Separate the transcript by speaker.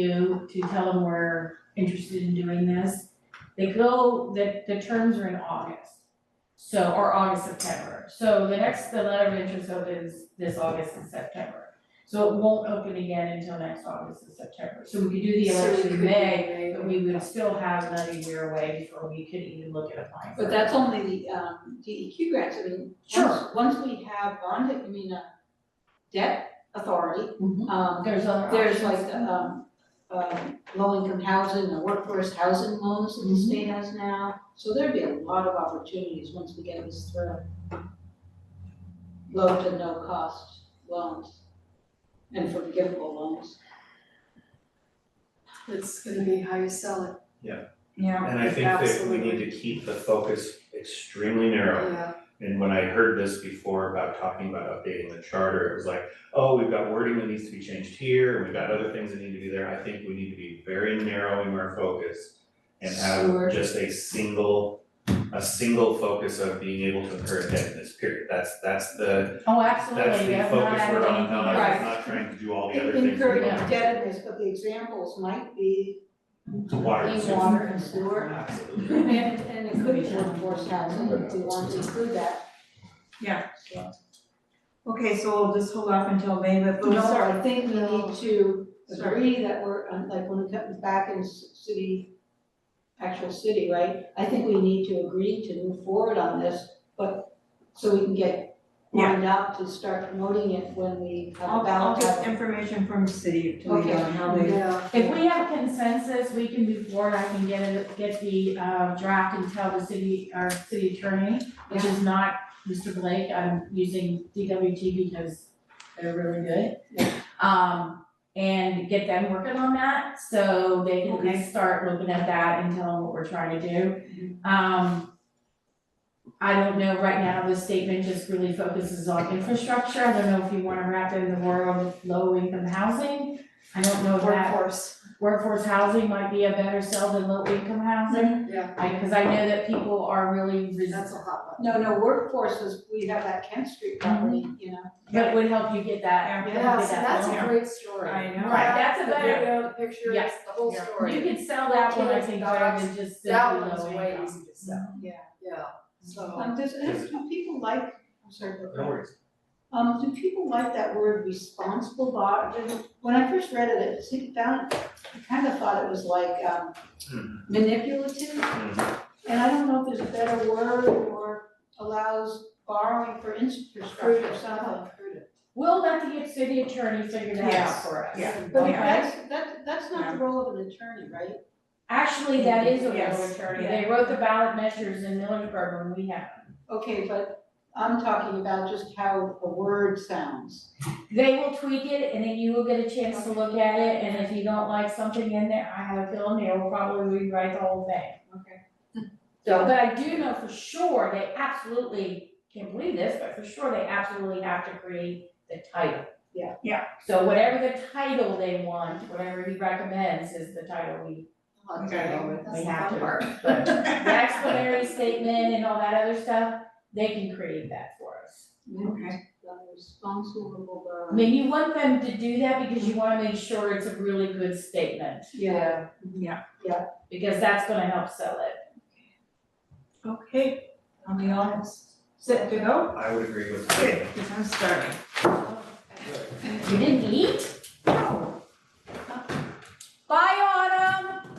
Speaker 1: you to tell them we're interested in doing this. They go, the, the terms are in August, so, or August, September. So the next, the letter of interest opens this August and September. So it won't open again until next August and September. So we could do the election in May, but we would still have another year away before we could even look at applying for it.
Speaker 2: But that's only the um DEQ grants, I mean,
Speaker 1: Sure.
Speaker 2: once, once we have bond, I mean, uh, debt authority,
Speaker 1: Mhm.
Speaker 2: um,
Speaker 1: There's other
Speaker 2: there's like,
Speaker 1: options.
Speaker 2: um, um, low-income housing, or workforce housing loans that the
Speaker 1: Mhm.
Speaker 2: state has now, so there'd be a lot of opportunities once we get this through. Low to no cost loans and forgivable loans.
Speaker 3: It's gonna be how you sell it,
Speaker 4: Yeah.
Speaker 5: And I think that we need to keep the focus extremely narrow.
Speaker 3: yeah,
Speaker 5: And when I heard this before about talking about updating the charter, it was like, oh, we've got wording that needs to be changed here, and we've got other things that need to be there. I think we need to be very narrow in our focus and
Speaker 2: Sure.
Speaker 5: have just a single, a single focus of being able to incur debt in this period. That's, that's the,
Speaker 1: Oh,
Speaker 5: that's
Speaker 1: absolutely,
Speaker 5: the
Speaker 1: that's not
Speaker 5: focus we're
Speaker 1: adding
Speaker 5: on,
Speaker 1: anything
Speaker 5: not,
Speaker 1: else.
Speaker 2: Right.
Speaker 5: not trying to do all the other things. we
Speaker 2: Incurring
Speaker 5: want.
Speaker 2: indebtedness, but the examples might be
Speaker 5: To water and
Speaker 1: Clean
Speaker 5: sewer.
Speaker 2: water and sewer.
Speaker 5: Absolutely.
Speaker 2: And, and it could be workforce housing, if we want to include that.
Speaker 4: Yeah.
Speaker 2: So,
Speaker 4: Okay, so we'll just hold off until May, but we'll
Speaker 2: No,
Speaker 4: start.
Speaker 2: I think we
Speaker 3: No.
Speaker 2: need to
Speaker 4: Sorry.
Speaker 2: agree that we're, um, like, when it comes back in s- city, actual city, right? I think we need to agree to move forward on this, but, so we can get
Speaker 4: Yeah.
Speaker 2: lined up to start promoting it when we have a
Speaker 4: I'll, I'll
Speaker 2: ballot.
Speaker 4: get information from the city of Toledo
Speaker 2: Okay.
Speaker 4: on how they.
Speaker 3: yeah.
Speaker 1: If we have consensus, we can move forward, I can get it, get the uh draft and tell the city, our city attorney, which is not Mr. Blake, I'm using DWT because they're really good.
Speaker 2: Yeah.
Speaker 1: Um, and get them working on that, so they can at least start looking at that and tell them what we're trying to do. Um, I don't know, right now, the statement just really focuses on infrastructure, I don't know if you wanna wrap in the world of low income housing. I don't know if that
Speaker 3: Workforce,
Speaker 1: workforce housing might be a better sell than low income housing.
Speaker 3: yeah,
Speaker 4: Mm-hmm.
Speaker 1: I, cause I know that people are really
Speaker 3: that's
Speaker 1: resist,
Speaker 3: a hot
Speaker 2: No, no, workforce is, we have that Kent Street property, you know,
Speaker 1: but it would help you get that,
Speaker 3: one.
Speaker 1: you know, get that loan.
Speaker 3: great story.
Speaker 4: I know.
Speaker 1: Right, that's a better,
Speaker 3: way to picture
Speaker 1: Yes.
Speaker 3: the whole
Speaker 4: Yeah.
Speaker 1: you could sell that one, I think, rather than just simply low income.
Speaker 3: easy to sell.
Speaker 2: Yeah.
Speaker 3: Yeah, so,
Speaker 2: um, does, do people like, I'm sorry, but.
Speaker 5: No worries.
Speaker 2: Um, do people like that word responsible borrow? When I first read it, it seemed found, I kind of thought it was like um
Speaker 5: Mhm.
Speaker 2: manipulative. And I don't know if there's a better word or allows borrowing for infrastructure or something.
Speaker 1: We'll let the city attorney figure that out
Speaker 4: Yes,
Speaker 1: for us.
Speaker 4: yeah.
Speaker 2: But
Speaker 1: Okay.
Speaker 2: that's, that, that's not the role of an attorney, right?
Speaker 1: Actually, that is a real
Speaker 4: Yes,
Speaker 1: attorney, they wrote the ballot measures in Millersburg when we had them.
Speaker 2: Okay, but I'm talking about just how a word sounds.
Speaker 1: They will tweak it and then you will get a chance to look at it, and if you don't like something in there, I have a feeling they will probably rewrite the whole thing.
Speaker 2: Okay.
Speaker 1: So, but I do know for sure, they absolutely, can't believe this, but for sure, they absolutely have to create the title.
Speaker 2: Yeah.
Speaker 4: Yeah.
Speaker 1: So whatever the title they want, whatever he recommends is the title we,
Speaker 2: I'll
Speaker 4: Okay.
Speaker 2: tell you.
Speaker 1: we have to. But the explanatory statement and all that other stuff, they can create that for us.
Speaker 2: Mm-hmm.
Speaker 4: Okay.
Speaker 2: Responsible
Speaker 1: I
Speaker 2: borrower.
Speaker 1: mean, you want them to do that because you wanna make sure it's a really good statement,
Speaker 2: Yeah.
Speaker 1: because that's gonna help sell it.
Speaker 4: Okay, are we all set to go?
Speaker 5: I would agree with that.
Speaker 4: Okay, because I'm starving.
Speaker 1: You didn't eat? Bye, Autumn!